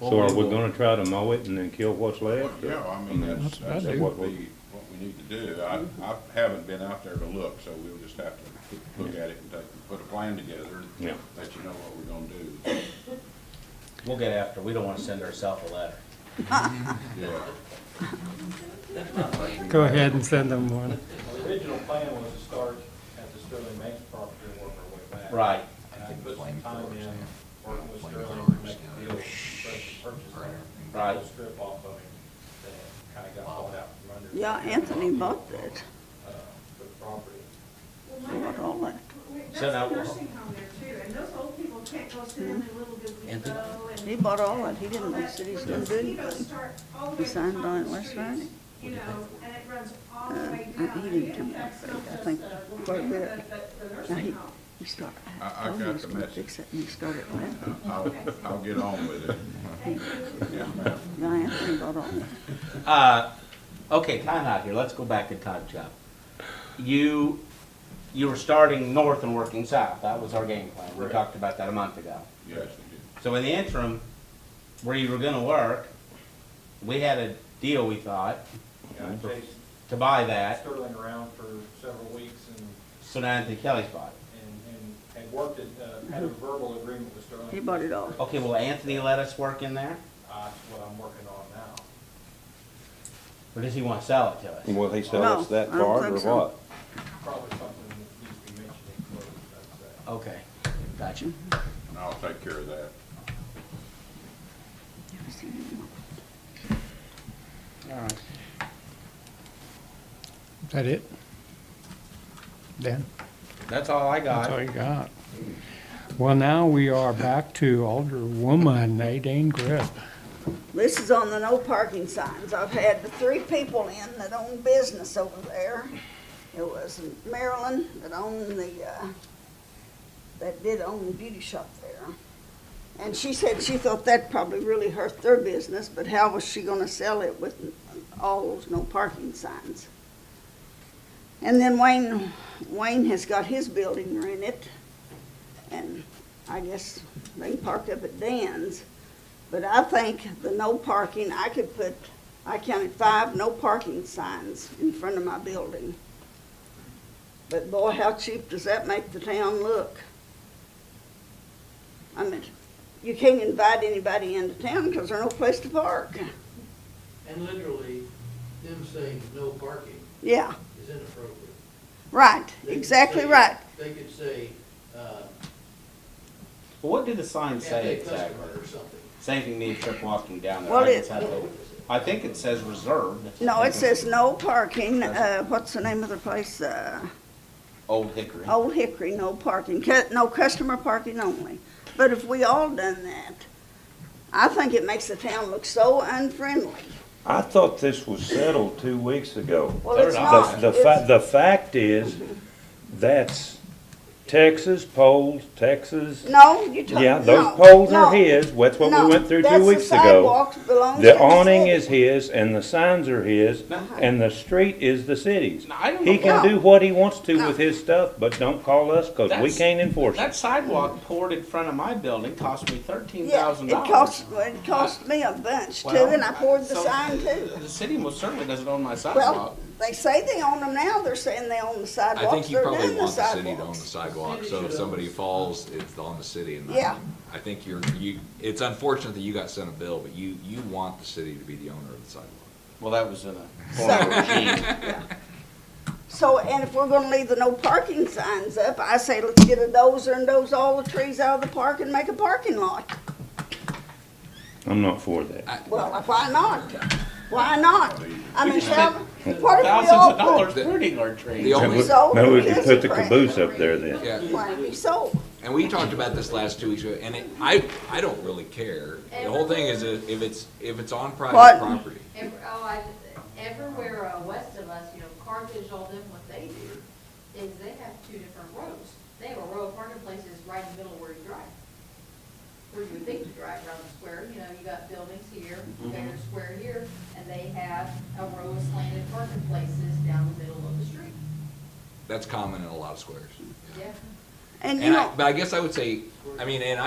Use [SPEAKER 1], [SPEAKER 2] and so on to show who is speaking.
[SPEAKER 1] Well,
[SPEAKER 2] So are
[SPEAKER 1] we
[SPEAKER 2] we
[SPEAKER 1] will-
[SPEAKER 2] gonna try to mow it and then kill what's
[SPEAKER 3] Well,
[SPEAKER 2] left? or-
[SPEAKER 3] Yeah, I mean, that's,
[SPEAKER 4] Mm, That's what I
[SPEAKER 3] that's
[SPEAKER 4] do.
[SPEAKER 3] what we, what we need to do. I, I haven't been out there to look, so we'll just have to look at it and take, put a plan together and
[SPEAKER 2] Yeah.
[SPEAKER 3] let you know what we're gonna do.
[SPEAKER 1] We'll get after, we don't wanna send ourselves a letter.
[SPEAKER 3] Yeah.
[SPEAKER 4] Go ahead and send them one.
[SPEAKER 5] The original plan was to start at the Sterling Banks property and work our way back.
[SPEAKER 1] Right.
[SPEAKER 5] And I put some time in, working with Sterling to make the deal, fresh purchase there.
[SPEAKER 1] Right.
[SPEAKER 5] Little Strip off of him, that kinda got bought out from under.
[SPEAKER 6] Yeah, Anthony bought that,
[SPEAKER 5] Uh, The property.
[SPEAKER 6] bought all that.
[SPEAKER 7] That's
[SPEAKER 1] So
[SPEAKER 7] a
[SPEAKER 1] now-
[SPEAKER 7] nursing home there too, and those old people can't go sit in their little
[SPEAKER 1] And-
[SPEAKER 7] bit window and.
[SPEAKER 6] He bought all that, he didn't
[SPEAKER 7] all
[SPEAKER 6] know the
[SPEAKER 7] that.
[SPEAKER 6] city's
[SPEAKER 7] Where
[SPEAKER 6] gonna
[SPEAKER 7] the
[SPEAKER 6] do
[SPEAKER 7] mosquitoes
[SPEAKER 6] anything.
[SPEAKER 7] start all the way
[SPEAKER 6] He
[SPEAKER 7] to the
[SPEAKER 6] signed
[SPEAKER 7] top
[SPEAKER 6] on
[SPEAKER 7] of
[SPEAKER 6] it
[SPEAKER 7] the
[SPEAKER 6] last
[SPEAKER 7] street,
[SPEAKER 6] Friday.
[SPEAKER 7] You know, and it runs all the
[SPEAKER 6] Uh,
[SPEAKER 7] way
[SPEAKER 6] uh,
[SPEAKER 7] down.
[SPEAKER 6] he
[SPEAKER 7] and
[SPEAKER 6] didn't
[SPEAKER 7] it
[SPEAKER 6] come out
[SPEAKER 7] affects
[SPEAKER 6] very
[SPEAKER 7] not
[SPEAKER 6] good. I
[SPEAKER 7] just
[SPEAKER 6] think
[SPEAKER 7] the-
[SPEAKER 6] quite a
[SPEAKER 7] the-
[SPEAKER 6] bit.
[SPEAKER 7] The the
[SPEAKER 6] Now,
[SPEAKER 7] nursing
[SPEAKER 6] he,
[SPEAKER 7] home.
[SPEAKER 6] he started,
[SPEAKER 3] I- I
[SPEAKER 6] I told
[SPEAKER 3] got
[SPEAKER 6] him he was
[SPEAKER 3] the
[SPEAKER 6] gonna
[SPEAKER 3] message.
[SPEAKER 6] fix it, and he started laughing.
[SPEAKER 3] I'll, I'll get on with it.
[SPEAKER 7] Thank you.
[SPEAKER 3] Yes, ma'am.
[SPEAKER 6] Yeah, Anthony bought all that.
[SPEAKER 1] Uh, okay, time out here, let's go back in time, Chuck. You, you were starting north and working south, that was our game plan, we
[SPEAKER 5] Correct.
[SPEAKER 1] talked about that a month ago.
[SPEAKER 3] Yes,
[SPEAKER 1] So in the interim, where you were gonna work, we had a deal, we thought,
[SPEAKER 5] And I chased
[SPEAKER 1] to buy that,
[SPEAKER 5] Sterling around for several weeks and,
[SPEAKER 1] so now Anthony Kelly's bought it.
[SPEAKER 5] and, and had worked it, uh, had a verbal agreement with Sterling.
[SPEAKER 6] Mm-hmm. He bought it all.
[SPEAKER 1] Okay, will Anthony let us work in there,
[SPEAKER 5] Uh, That's what I'm working on now.
[SPEAKER 1] or does he wanna sell it to us?
[SPEAKER 8] Will he sell
[SPEAKER 6] No,
[SPEAKER 8] us that
[SPEAKER 6] I don't
[SPEAKER 8] part or
[SPEAKER 6] think so.
[SPEAKER 8] what?
[SPEAKER 5] Probably something that needs to be mentioned in closed, I'd say.
[SPEAKER 1] Okay, gotcha.
[SPEAKER 3] and I'll take care of that.
[SPEAKER 6] Never seen him.
[SPEAKER 1] All right.
[SPEAKER 4] Is that it? Dan,
[SPEAKER 1] That's all I
[SPEAKER 4] that's all
[SPEAKER 1] got.
[SPEAKER 4] you got. Well, now we are back to Alderwoman Nadine Grip.
[SPEAKER 6] This is on the no parking signs. I've had the three people in that own business over there. It was Marilyn that owned the, uh, that did own the beauty shop there. And she said she thought that probably really hurt their business, but how was she gonna sell it with all those no parking signs? And then Wayne, Wayne has got his building rented, and I guess they parked up at Dan's. But I think the no parking, I could put, I counted five no parking signs in front of my building. But boy, how cheap does that make the town look? I mean, you can't invite anybody into town because there's no place to park.
[SPEAKER 9] And literally, them saying no parking
[SPEAKER 6] Yeah,
[SPEAKER 9] is inappropriate.
[SPEAKER 6] right,
[SPEAKER 9] They could
[SPEAKER 6] exactly
[SPEAKER 9] say-
[SPEAKER 6] right.
[SPEAKER 9] They could say, uh,
[SPEAKER 1] What do the signs say
[SPEAKER 9] cafe
[SPEAKER 1] exactly?
[SPEAKER 9] customer or something.
[SPEAKER 1] Saving me a trip walking down there.
[SPEAKER 6] Well,
[SPEAKER 1] I
[SPEAKER 6] it-
[SPEAKER 1] just had to- I think it says reserved.
[SPEAKER 6] No, it says no parking, uh, what's the name of the place? Uh,
[SPEAKER 1] Old Hickory.
[SPEAKER 6] Old Hickory, no parking, cu- no customer parking only. But if we all done that, I think it makes the town look so unfriendly.
[SPEAKER 8] I thought this was settled two weeks ago.
[SPEAKER 6] Well, it's
[SPEAKER 1] They're
[SPEAKER 6] not.
[SPEAKER 8] The, the fa-
[SPEAKER 6] It's-
[SPEAKER 8] the fact is, that's Texas poles, Texas,
[SPEAKER 6] No, you talk,
[SPEAKER 8] yeah,
[SPEAKER 6] no,
[SPEAKER 8] those poles are
[SPEAKER 6] no,
[SPEAKER 8] his, that's what
[SPEAKER 6] no.
[SPEAKER 8] we went through
[SPEAKER 6] That's
[SPEAKER 8] two
[SPEAKER 6] the
[SPEAKER 8] weeks ago.
[SPEAKER 6] sidewalks belongs to
[SPEAKER 8] The awning
[SPEAKER 6] city.
[SPEAKER 8] is his, and the signs are his, and the street is the city's.
[SPEAKER 1] No, I don't
[SPEAKER 8] He
[SPEAKER 1] know.
[SPEAKER 8] can
[SPEAKER 6] No.
[SPEAKER 8] do what he wants to
[SPEAKER 6] No.
[SPEAKER 8] with his stuff, but don't call us, cause we
[SPEAKER 1] That's-
[SPEAKER 8] can't enforce it.
[SPEAKER 1] That sidewalk poured in front of my building cost me thirteen
[SPEAKER 6] Yeah,
[SPEAKER 1] thousand
[SPEAKER 6] it
[SPEAKER 1] dollars.
[SPEAKER 6] cost, well, it cost me a bunch too, and I poured the sign too.
[SPEAKER 1] The city most certainly doesn't own my sidewalk.
[SPEAKER 6] Well, they say they own them now, they're saying they own the
[SPEAKER 10] I think
[SPEAKER 6] sidewalks,
[SPEAKER 10] you
[SPEAKER 6] they're
[SPEAKER 10] probably
[SPEAKER 6] doing the
[SPEAKER 10] want the city to own the
[SPEAKER 6] sidewalks.
[SPEAKER 10] sidewalk, so if somebody falls, it's on the city and.
[SPEAKER 6] Yeah.
[SPEAKER 10] I think you're, you, it's unfortunate that you got sent a bill, but you, you want the city to be the owner of the sidewalk.
[SPEAKER 1] Well, that was in a
[SPEAKER 6] So-
[SPEAKER 1] former regime.
[SPEAKER 6] So, and if we're gonna leave the no parking signs up, I say let's get a dozer and doze all the trees out of the park and make a parking lot.
[SPEAKER 2] I'm not for that.
[SPEAKER 6] Well, why not? Why not? I mean, shall, what if we
[SPEAKER 1] Thousands
[SPEAKER 6] all
[SPEAKER 1] of
[SPEAKER 6] put
[SPEAKER 1] dollars pruning our trees.
[SPEAKER 10] The only,
[SPEAKER 6] So-
[SPEAKER 2] Maybe we could put the
[SPEAKER 6] Right.
[SPEAKER 2] caboose up there then.
[SPEAKER 10] yeah,
[SPEAKER 6] Why be sold?
[SPEAKER 10] and we talked about this last two weeks ago, and it, I, I don't really care. The whole thing is if if it's, if it's on
[SPEAKER 6] What?
[SPEAKER 10] private property.
[SPEAKER 11] Ev- Oh, I, everywhere uh, west of us, you know, Carthage, all them, what they do is they have two different roads. They have a row of parking places right in the middle where you drive. Where you would think you drive around the square, you know, you got buildings here,
[SPEAKER 10] Mm-hmm.
[SPEAKER 11] there's a square here, and they have a row of slanted parking places down the middle of the street.
[SPEAKER 10] That's common in a lot of squares.
[SPEAKER 11] Yeah.
[SPEAKER 6] And you
[SPEAKER 10] And I,
[SPEAKER 6] know,
[SPEAKER 10] but I guess I would say, I mean, and